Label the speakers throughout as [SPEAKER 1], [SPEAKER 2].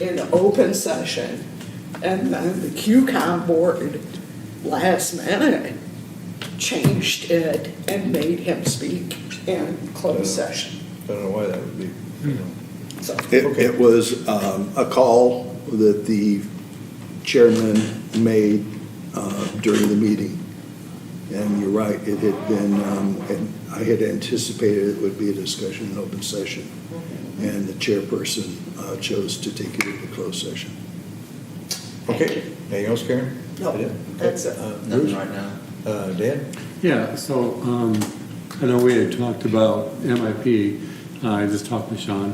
[SPEAKER 1] in open session, and then the QCOM board last minute changed it and made him speak in closed session,
[SPEAKER 2] I don't know why that would be.
[SPEAKER 1] so.
[SPEAKER 3] It, it was um, a call that the chairman made uh, during the meeting. And you're right, it had been, um, and I had anticipated it would be a discussion in open session. And the chairperson uh, chose to take it into closed session.
[SPEAKER 2] Okay, anything else, Karen?
[SPEAKER 1] No,
[SPEAKER 2] Okay.
[SPEAKER 1] that's it.
[SPEAKER 2] Uh, Bruce?
[SPEAKER 4] Nothing right now.
[SPEAKER 2] Uh, Dan?
[SPEAKER 5] Yeah, so, um, I know we had talked about MIP, Uh, I just talked to Sean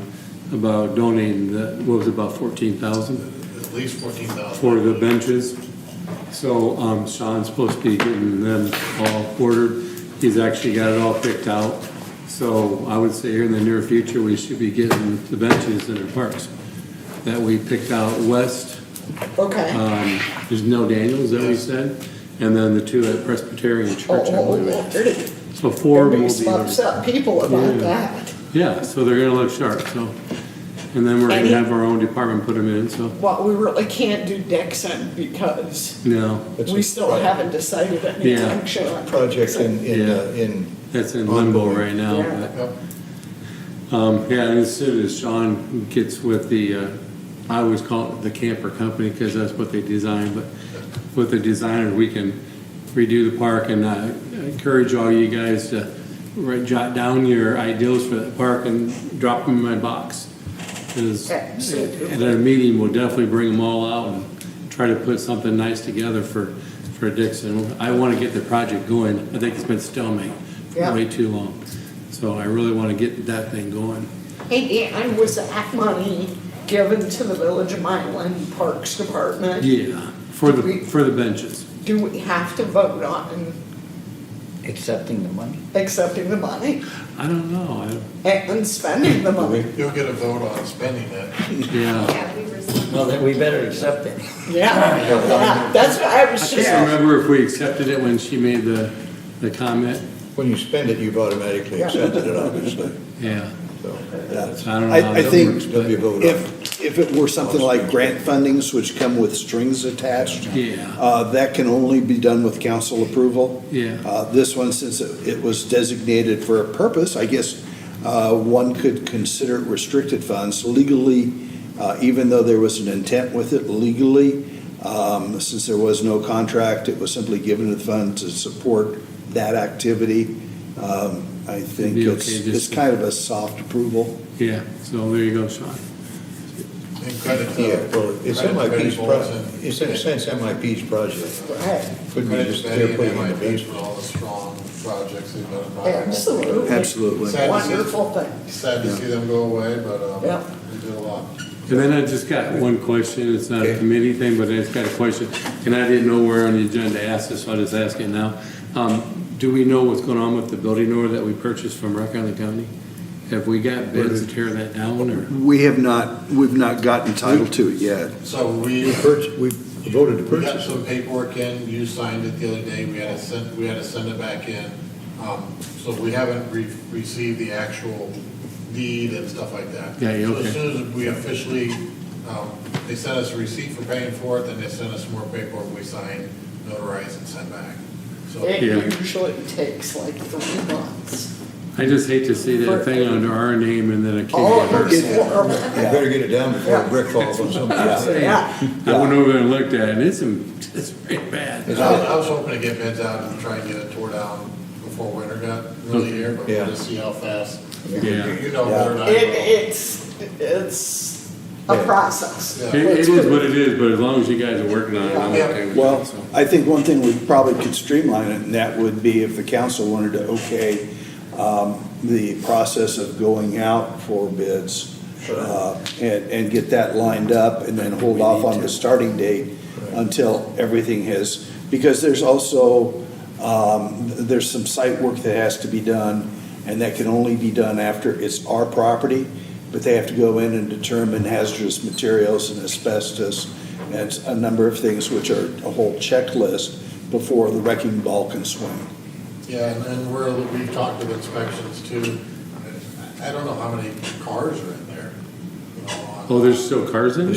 [SPEAKER 5] about donating the, what was it, about fourteen thousand
[SPEAKER 6] At least fourteen thousand.
[SPEAKER 5] for the benches. So, um, Sean's supposed to be getting them all ordered, he's actually got it all picked out. So I would say here in the near future, we should be getting the benches in our parks that we picked out west,
[SPEAKER 2] uh,
[SPEAKER 1] Okay.
[SPEAKER 5] um, there's no Daniels that we said, and then the two at Presbyterian
[SPEAKER 1] Oh,
[SPEAKER 5] Church, I
[SPEAKER 1] oh,
[SPEAKER 5] believe.
[SPEAKER 1] oh, pretty.
[SPEAKER 5] So four will
[SPEAKER 1] Everybody
[SPEAKER 5] be.
[SPEAKER 1] smokes up people about
[SPEAKER 5] Yeah.
[SPEAKER 1] that.
[SPEAKER 5] Yeah, so they're gonna look sharp, so, and then we're
[SPEAKER 1] Any-
[SPEAKER 5] gonna have our own department put them in, so,
[SPEAKER 1] Well, we really can't do Dixon because
[SPEAKER 5] no,
[SPEAKER 2] That's
[SPEAKER 1] we
[SPEAKER 2] a
[SPEAKER 1] still
[SPEAKER 2] project-
[SPEAKER 1] haven't decided any
[SPEAKER 5] Yeah.
[SPEAKER 1] action on
[SPEAKER 2] Project
[SPEAKER 1] Dixon.
[SPEAKER 2] in, in, uh,
[SPEAKER 5] Yeah.
[SPEAKER 2] in,
[SPEAKER 5] that's in limbo
[SPEAKER 2] Ongoing.
[SPEAKER 5] right now,
[SPEAKER 1] Yeah.
[SPEAKER 5] but, um, yeah, and as soon as Sean gets with the, uh, I always call it the camper company, cause that's what they design, but with the designer, we can redo the park and, uh, encourage all you guys to write, jot down your ideals for the park and drop them in my box. 'Cause
[SPEAKER 1] Absolutely.
[SPEAKER 5] At our meeting, we'll definitely bring them all out and try to put something nice together for, for Dixon. I want to get the project going. I think it's been stalemate
[SPEAKER 1] Yeah.
[SPEAKER 5] for way too long. So I really want to get that thing going.
[SPEAKER 1] And, and was that money given to the Village of Mylan Parks Department?
[SPEAKER 5] Yeah, for the,
[SPEAKER 1] We-
[SPEAKER 5] for the benches.
[SPEAKER 1] Do we have to vote on
[SPEAKER 4] Accepting the money?
[SPEAKER 1] accepting the money
[SPEAKER 5] I don't know,
[SPEAKER 1] and spending the money?
[SPEAKER 6] You'll get a vote on spending that.
[SPEAKER 5] I, yeah.
[SPEAKER 7] Yeah, we were.
[SPEAKER 4] Well, then we better accept it.
[SPEAKER 1] Yeah, yeah, that's what I
[SPEAKER 5] I
[SPEAKER 1] was
[SPEAKER 5] can't
[SPEAKER 1] just,
[SPEAKER 5] remember if we accepted it when she made the, the comment.
[SPEAKER 2] when you spend it, you've automatically
[SPEAKER 1] Yeah.
[SPEAKER 2] accepted it, obviously,
[SPEAKER 5] Yeah,
[SPEAKER 2] so, yeah.
[SPEAKER 5] so I don't know.
[SPEAKER 3] I-
[SPEAKER 5] how
[SPEAKER 3] I
[SPEAKER 5] that
[SPEAKER 3] think-
[SPEAKER 5] works, but-
[SPEAKER 2] There'll be a vote on it.
[SPEAKER 3] If, if it were something like grant fundings, which come with strings attached.
[SPEAKER 5] Yeah.
[SPEAKER 3] uh, That can only be done with council approval.
[SPEAKER 5] Yeah.
[SPEAKER 3] Uh, This one, since it it was designated for a purpose, I guess uh, one could consider it restricted funds legally, uh, even though there was an intent with it legally. um, Since there was no contract, it was simply given to the fund to support that activity. Um, I think
[SPEAKER 5] be
[SPEAKER 3] it's,
[SPEAKER 5] okay just
[SPEAKER 3] it's
[SPEAKER 5] to-
[SPEAKER 3] kind of a soft approval.
[SPEAKER 5] Yeah, so there you go, Sean.
[SPEAKER 6] And credit to.
[SPEAKER 2] Yeah, well, it's
[SPEAKER 6] credit to
[SPEAKER 2] MIP's
[SPEAKER 6] Betty Bolt
[SPEAKER 2] project,
[SPEAKER 6] and-
[SPEAKER 2] it's in a sense MIP's project.
[SPEAKER 1] right,
[SPEAKER 2] Could be
[SPEAKER 6] Credit
[SPEAKER 2] just
[SPEAKER 6] to Betty
[SPEAKER 2] they're
[SPEAKER 6] and
[SPEAKER 2] putting in the bench.
[SPEAKER 6] MIP for all the strong projects they've been involved in.
[SPEAKER 1] absolutely.
[SPEAKER 3] Absolutely.
[SPEAKER 1] Wonderful thing,
[SPEAKER 6] Sad to see them go away, but,
[SPEAKER 1] Yeah.
[SPEAKER 6] um, we did a lot.
[SPEAKER 5] And then I just got one question, it's not a
[SPEAKER 2] Okay.
[SPEAKER 5] committee thing, but I just got a question, and I didn't know where on the agenda to ask this, so I'll just ask it now. Um, Do we know what's going on with the building order that we purchased from Rock Island County? Have we got bids to tear that down, or?
[SPEAKER 3] We have not, we've not gotten title to it yet.
[SPEAKER 6] So
[SPEAKER 2] We
[SPEAKER 6] we,
[SPEAKER 2] purch, we voted to
[SPEAKER 6] we got
[SPEAKER 2] purchase it.
[SPEAKER 6] some paperwork in, you signed it the other day, we had to send, we had to send it back in. Um, so we haven't re- received the actual deed and stuff like that.
[SPEAKER 5] Yeah, yeah,
[SPEAKER 6] So as
[SPEAKER 5] okay.
[SPEAKER 6] soon as we officially, um, they sent us a receipt for paying for it, then they sent us more paperwork we signed, notarized and sent back. So,
[SPEAKER 1] it
[SPEAKER 5] Yeah.
[SPEAKER 1] usually takes like three months.
[SPEAKER 5] I just hate to see that thing under our name and then a kid.
[SPEAKER 1] Oh, it
[SPEAKER 5] get hurt.
[SPEAKER 1] looks horrible,
[SPEAKER 2] You better get it down before a brick falls on somebody.
[SPEAKER 1] yeah.
[SPEAKER 5] I went over and looked at it, and it's, it's pretty bad.
[SPEAKER 6] I was- I was hoping to get bids out and try and get it tore down before winter got really here, but
[SPEAKER 2] Yeah.
[SPEAKER 6] we'll just see how fast. You
[SPEAKER 5] Yeah.
[SPEAKER 6] you know, better than I
[SPEAKER 1] It,
[SPEAKER 6] will.
[SPEAKER 1] it's, it's a
[SPEAKER 2] Yeah.
[SPEAKER 1] process.
[SPEAKER 6] Yeah.
[SPEAKER 5] It it is what it is, but as long as you guys are working on it, I'm
[SPEAKER 6] Yeah.
[SPEAKER 5] okay with it.
[SPEAKER 3] Well,
[SPEAKER 5] so.
[SPEAKER 3] I think one thing we probably could streamline it, and that would be if the council wanted to okay um, the process of going out for bids uh, and, and get that lined up and then hold off on the starting date until everything has, because there's also, um, there's some site work that has to be done, and that can only be done after it's our property, but they have to go in and determine hazardous materials and asbestos and a number of things which are a whole checklist before the wrecking ball can swing.
[SPEAKER 6] Yeah, and then we're, we've talked with inspections too. I don't know how many cars are in there. you know, on-
[SPEAKER 5] Oh, there's still cars in it?